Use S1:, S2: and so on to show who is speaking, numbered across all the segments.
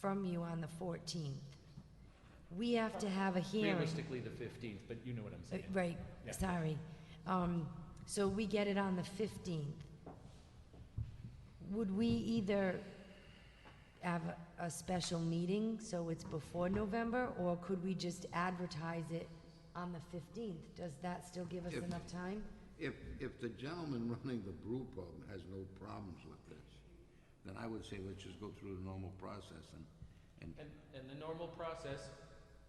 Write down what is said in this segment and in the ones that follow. S1: from you on the 14th. We have to have a hearing.
S2: Realistically, the 15th, but you know what I'm
S1: Uh,
S2: saying.
S1: Right,
S2: Yeah.
S1: sorry. Um, So we get it on the 15th. Would we either have a- a special meeting, so it's before November, or could we just advertise it on the 15th? Does that still give us
S3: If-
S1: enough time?
S3: If, if the gentleman running the brew pub has no problems with this, then I would say let's just go through the normal process and, and,
S4: And, and the normal process,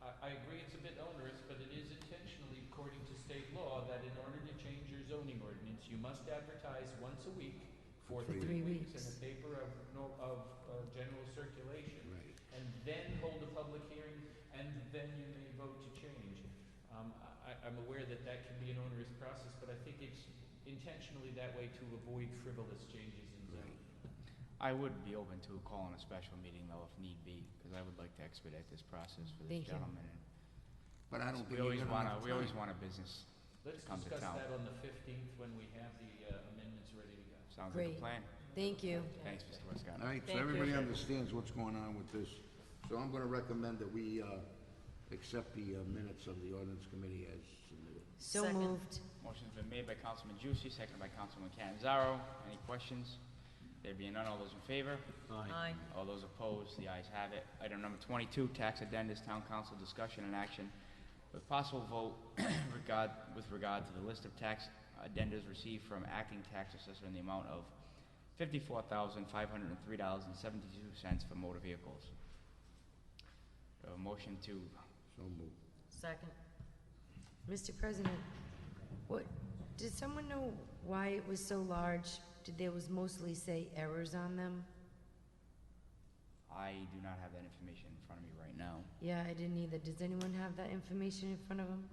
S4: I, I agree it's a bit onerous, but it is intentionally according to state law that in order to change your zoning ordinance, you must advertise once a week for
S3: For
S4: three
S1: three
S4: weeks in
S1: weeks.
S4: a paper of, no- of, uh, general circulation.
S3: right.
S4: And then hold a public hearing, and then you may vote to change. Um, I, I- I'm aware that that can be an onerous process, but I think it's intentionally that way to avoid frivolous changes in zoning.
S5: I would be open to calling a special meeting though if need be, because I would like to expedite this process for
S1: Thank
S5: this
S1: you.
S5: gentleman.
S3: But I don't think
S5: We
S3: you're
S5: always
S3: gonna
S5: wanna,
S3: have
S5: we always
S3: time.
S5: want a business,
S4: Let's
S5: Come to
S4: discuss
S5: town.
S4: that on the fifteenth when we have the uh, amendments ready to go.
S5: sounds like a
S1: Great.
S5: plan.
S1: Thank you.
S5: Thanks, Mr. Westcott.
S3: All right, so
S1: Thank you.
S3: everybody understands what's going on with this. So I'm gonna recommend that we, uh, accept the uh, minutes of the ordinance committee as submitted.
S1: So
S6: Second.
S1: moved.
S5: Motion's been made by Councilman Juicy, seconded by Councilman Canzaro. Any questions? There being none, all those in favor?
S6: Aye.
S5: All those opposed, the ayes have it. Item number twenty-two, tax addendums, town council discussion and action with possible vote regard, with regard to the list of tax addendums received from acting tax assessor in the amount of fifty-four thousand, five hundred and three dollars and seventy-two cents for motor vehicles. Do I have a motion to,
S3: So moved.
S6: Second.
S1: Mr. President, what, did someone know why it was so large? Did there was mostly, say, errors on them?
S5: I do not have that information in front of me right now.
S1: Yeah, I didn't either. Does anyone have that information in front of them?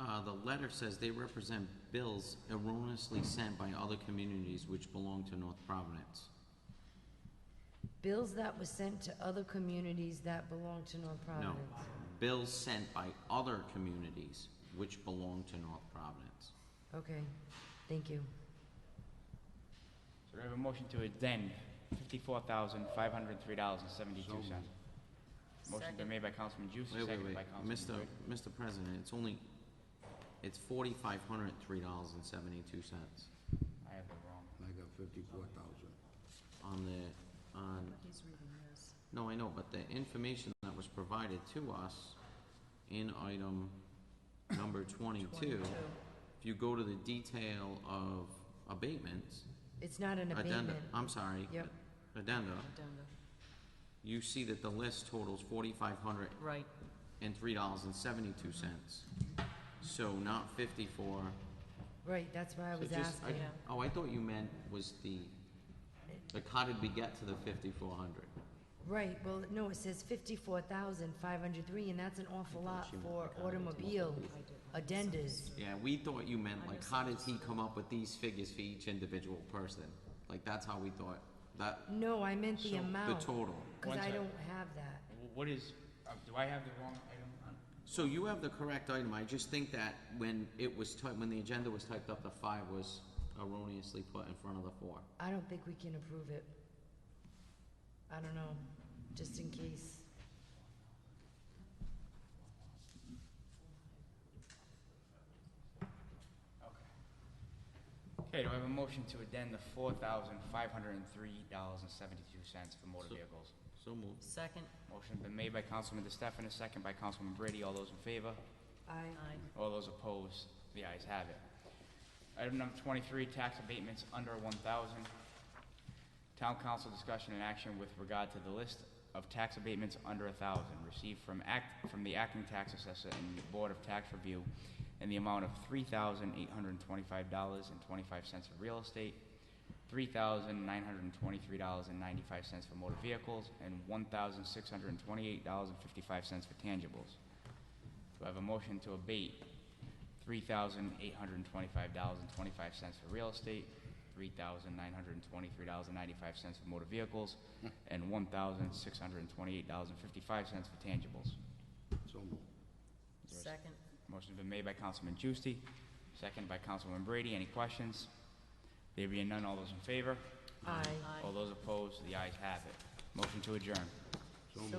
S7: Uh, the letter says they represent bills erroneously sent by other communities which belong to North Providence.
S1: Bills that were sent to other communities that belong to North
S7: No,
S1: Providence.
S7: bills sent by other communities which belong to North Providence.
S1: Okay, thank you.
S5: So do I have a motion to addend fifty-four thousand, five hundred and three dollars and seventy-two cents? Motion been
S6: Second.
S5: made by Councilman Juicy,
S7: Wait, wait,
S5: seconded
S7: wait,
S5: by Councilman
S7: Mr.
S5: Brady.
S7: Mr. President, it's only, it's forty-five hundred and three dollars and seventy-two cents
S5: I have the wrong.
S3: I got fifty-four thousand.
S7: on the, on, no, I know, but the information that was provided to us in item number twenty-two, if you go to the detail of abatements,
S1: It's not an
S7: addenda,
S1: abatement.
S7: I'm sorry.
S1: Yep.
S7: Addenda,
S6: Addenda.
S7: you see that the list totals forty-five hundred
S6: Right,
S7: and three dollars and seventy-two cents. So not fifty-four.
S1: Right, that's why I
S7: So
S1: was
S7: just- I-
S1: asking.
S6: Yeah.
S7: Oh, I thought you meant was the, like, how did we get to the fifty-four hundred?
S1: Right, well, no, it says fifty-four thousand five hundred three, and that's an awful lot for automobile addendas.
S7: Yeah, we thought you meant, like, how did he come up with these figures for each individual person? Like, that's how we thought, that,
S1: No, I meant the
S7: So, the
S1: amount.
S7: total.
S1: Cause
S5: One
S1: I
S5: sec.
S1: don't have that.
S5: Wh- What is, uh, do I have the wrong item Uh, on?
S7: so you have the correct item, I just think that when it was typed, when the agenda was typed up, the five was erroneously put in front of the four.
S1: I don't think we can approve it. I don't know, just in case.
S5: Okay, do I have a motion to addend the four thousand five hundred and three dollars and seventy-two cents for motor
S7: So-
S5: vehicles?
S7: So moved.
S6: second,
S5: Motion been made by Councilman DeStefan, a second by Councilman Brady. All those in favor?
S1: I,
S6: aye.
S5: All those opposed? The ayes have it. Item number twenty-three, tax abatements under one thousand. Town council discussion and action with regard to the list of tax abatements under a thousand received from act, from the acting tax assessor and the Board of Tax Review in the amount of three thousand eight hundred and twenty-five dollars and twenty-five cents for real estate, three thousand nine hundred and twenty-three dollars and ninety-five cents for motor vehicles, and one thousand six hundred and twenty-eight dollars and fifty-five cents for tangibles. Do I have a motion to abate three thousand eight hundred and twenty-five dollars and twenty-five cents for real estate, three thousand nine hundred and twenty-three dollars and ninety-five cents for motor vehicles, and one thousand six hundred and twenty-eight dollars and fifty-five cents for tangibles.
S3: So moved.
S6: Second,
S5: Motion's been made by Councilman Juicy, second by Councilman Brady. Any questions? There being none, all those in favor?
S1: I.
S6: aye.
S5: All those opposed? The ayes have it. Motion to adjourn.
S8: So
S3: So